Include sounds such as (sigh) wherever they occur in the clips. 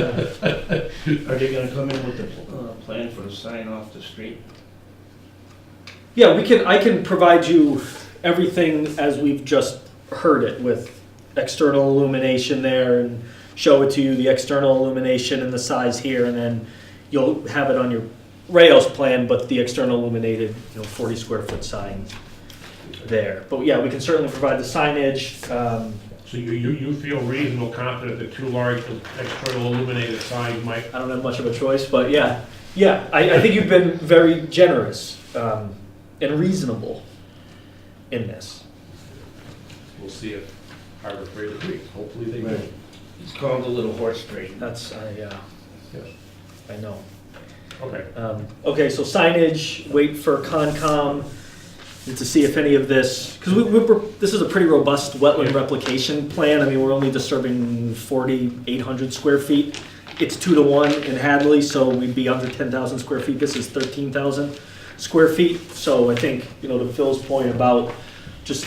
Are they gonna come in with a uh, plan for the sign off the street? (laughs) Yeah, we can, I can provide you everything as we've just heard it with external illumination there and show it to you, the external illumination and the size here, and then you'll have it on your rails plan, but the external illuminated, you know, forty square foot sign there. But yeah, we can certainly provide the signage, um, So you, you, you feel reasonable, confident that two large external illuminated signs might, I don't have much of a choice, but yeah, yeah. I, I think you've been very generous um, and reasonable in this. we'll see if Harbor Freight agrees, hopefully they do. It's called the Little Horse Trade. That's I, uh, Yes. I know. Okay, Um, okay, so signage. Wait for Concom and to see if any of this because we, we were, this is a pretty robust wetland Yeah. replication plan. I mean, we're only disturbing 4,800 square feet. It's two to one in Hadley, so we'd be under 10,000 square feet. This is 13,000 square feet. So I think you know to Phil's point about just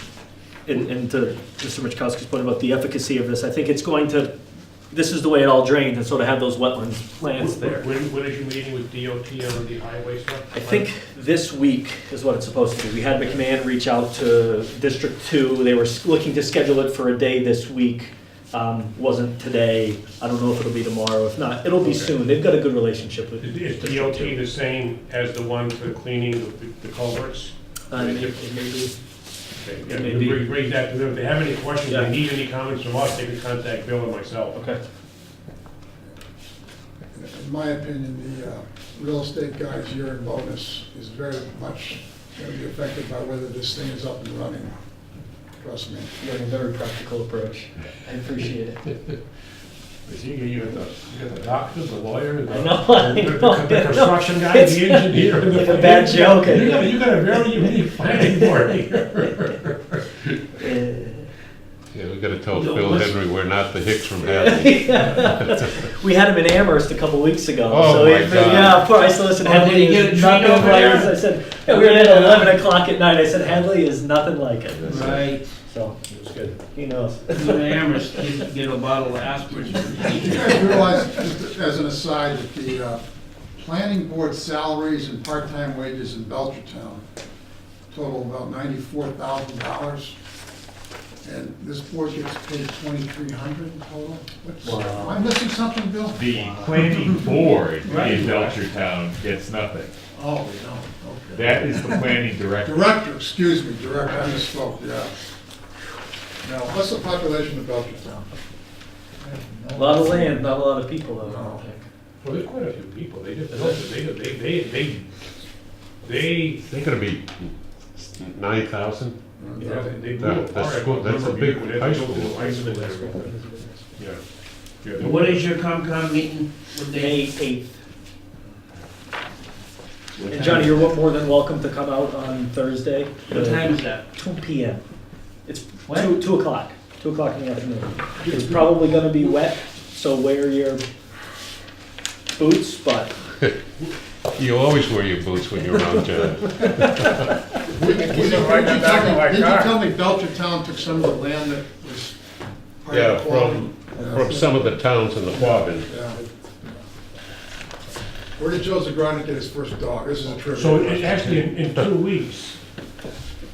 and, and to Mr. Michkowski's point about the efficacy of this, I think it's going to. This is the way it all drains, and so to have those wetlands plans there. when, when is your meeting with DOT on the highway stuff? I think this week is what it's supposed to be. We had McMahon reach out to District Two. They were s- looking to schedule it for a day this week. Um, wasn't today. I don't know if it'll be tomorrow. If not, it'll be Okay. soon. They've got a good relationship with. Is District DOT Two. the same as the one for cleaning the- the culverts? Uh, may- maybe. Okay, yeah, Maybe. Bring bring that to them, if they have any questions, Yeah. they need any comments from us, they can contact Bill and myself. Okay. In my opinion, the uh, real estate guy's year in bonus is very much going to be affected by whether this thing is up and running. Trust me. You're a very practical approach. I appreciate it. You you got the, you got the doctor, the lawyer, the. I (laughs) know, I the- know, The I know. construction guy, It's- the engineer. it's the- like a bad joke. (laughs) You got, you got a very unique planning (laughs) board here. Uh, Yeah, we gotta tell No, Phil let's- Henry we're not the Hicks from Hadley. we had him in Amherst a couple weeks ago. Oh, so my he- God. Yeah, of course. I said, listen, Oh, Hadley did he get a is treat nothing over like there? this. I said, yeah, we were in at 11 o'clock at night. I said, Hadley is nothing like it. Right. So It was good. he knows. You and Amherst, get get a bottle of (laughs) aspirin. You guys realize, just as an aside, that the uh, planning board salaries and part-time wages in Belchertown total about ninety-four thousand dollars, and this board gets paid twenty-three hundred total? What's- Am I missing something, Bill? The planning board Right. in Belchertown gets nothing. Oh, no, okay. That is the planning director. Director, excuse me, director, I misspoke, yeah. Now, what's the population of Belchertown? A lot of land, not a lot of people though. I don't No. think. Well, there's quite a few people, they just, built it. they, they, they, they, they, They're gonna be nine thousand? you know, they blew That- apart. that's I school- that's a remember big when they high built school. this ice and everything. Yeah. Yeah, they- What is your Comcom meeting? What May day? eighth. What And time? Johnny, you're more than welcome to come out on Thursday. Uh, What time is that? Two P M. It's What? two, two o'clock, two o'clock in the afternoon. It's probably gonna be wet, so wear your boots, but You always wear your boots when you're around town. Did you- did you tell me- did you tell me Belchertown took some of the land that was part Yeah, of the from, from some of the towns in the Quabbin. Yeah. Where did Joe Zagranik get his first dog? This is a trivia. So it- question. actually, in, in two weeks,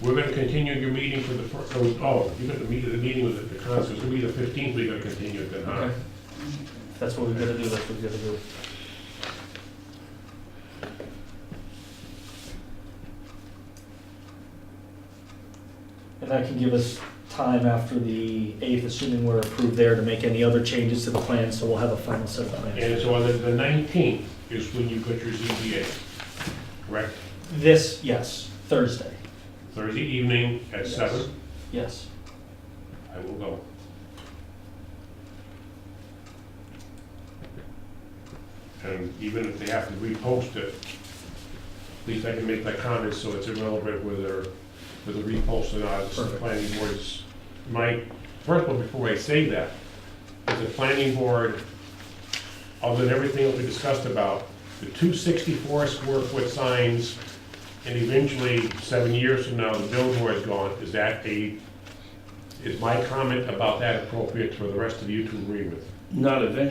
we're gonna continue your meeting for the first, oh, you got the meeting, the meeting was at the council, it's gonna be the fifteenth, we gotta continue it then, huh? that's what we're gonna do, that's what we're gonna do. And that can give us time after the eighth, assuming we're approved there, to make any other changes to the plan, so we'll have a final set of plans. And so on the- the nineteenth is when you got your ZBA, correct? This, yes, Thursday, Thursday evening at Yes. seven, yes. I will go. And even if they have to repost it, at least I can make that comment, so it's irrelevant whether, whether repost or not, it's the Perfect. planning board's. My, first of all, before I say that, is the planning board, other than everything that we discussed about, the two sixty-four square foot signs, and eventually, seven years from now, the billboard's gone, is that a, is my comment about that appropriate for the rest of you to agree with? not eventually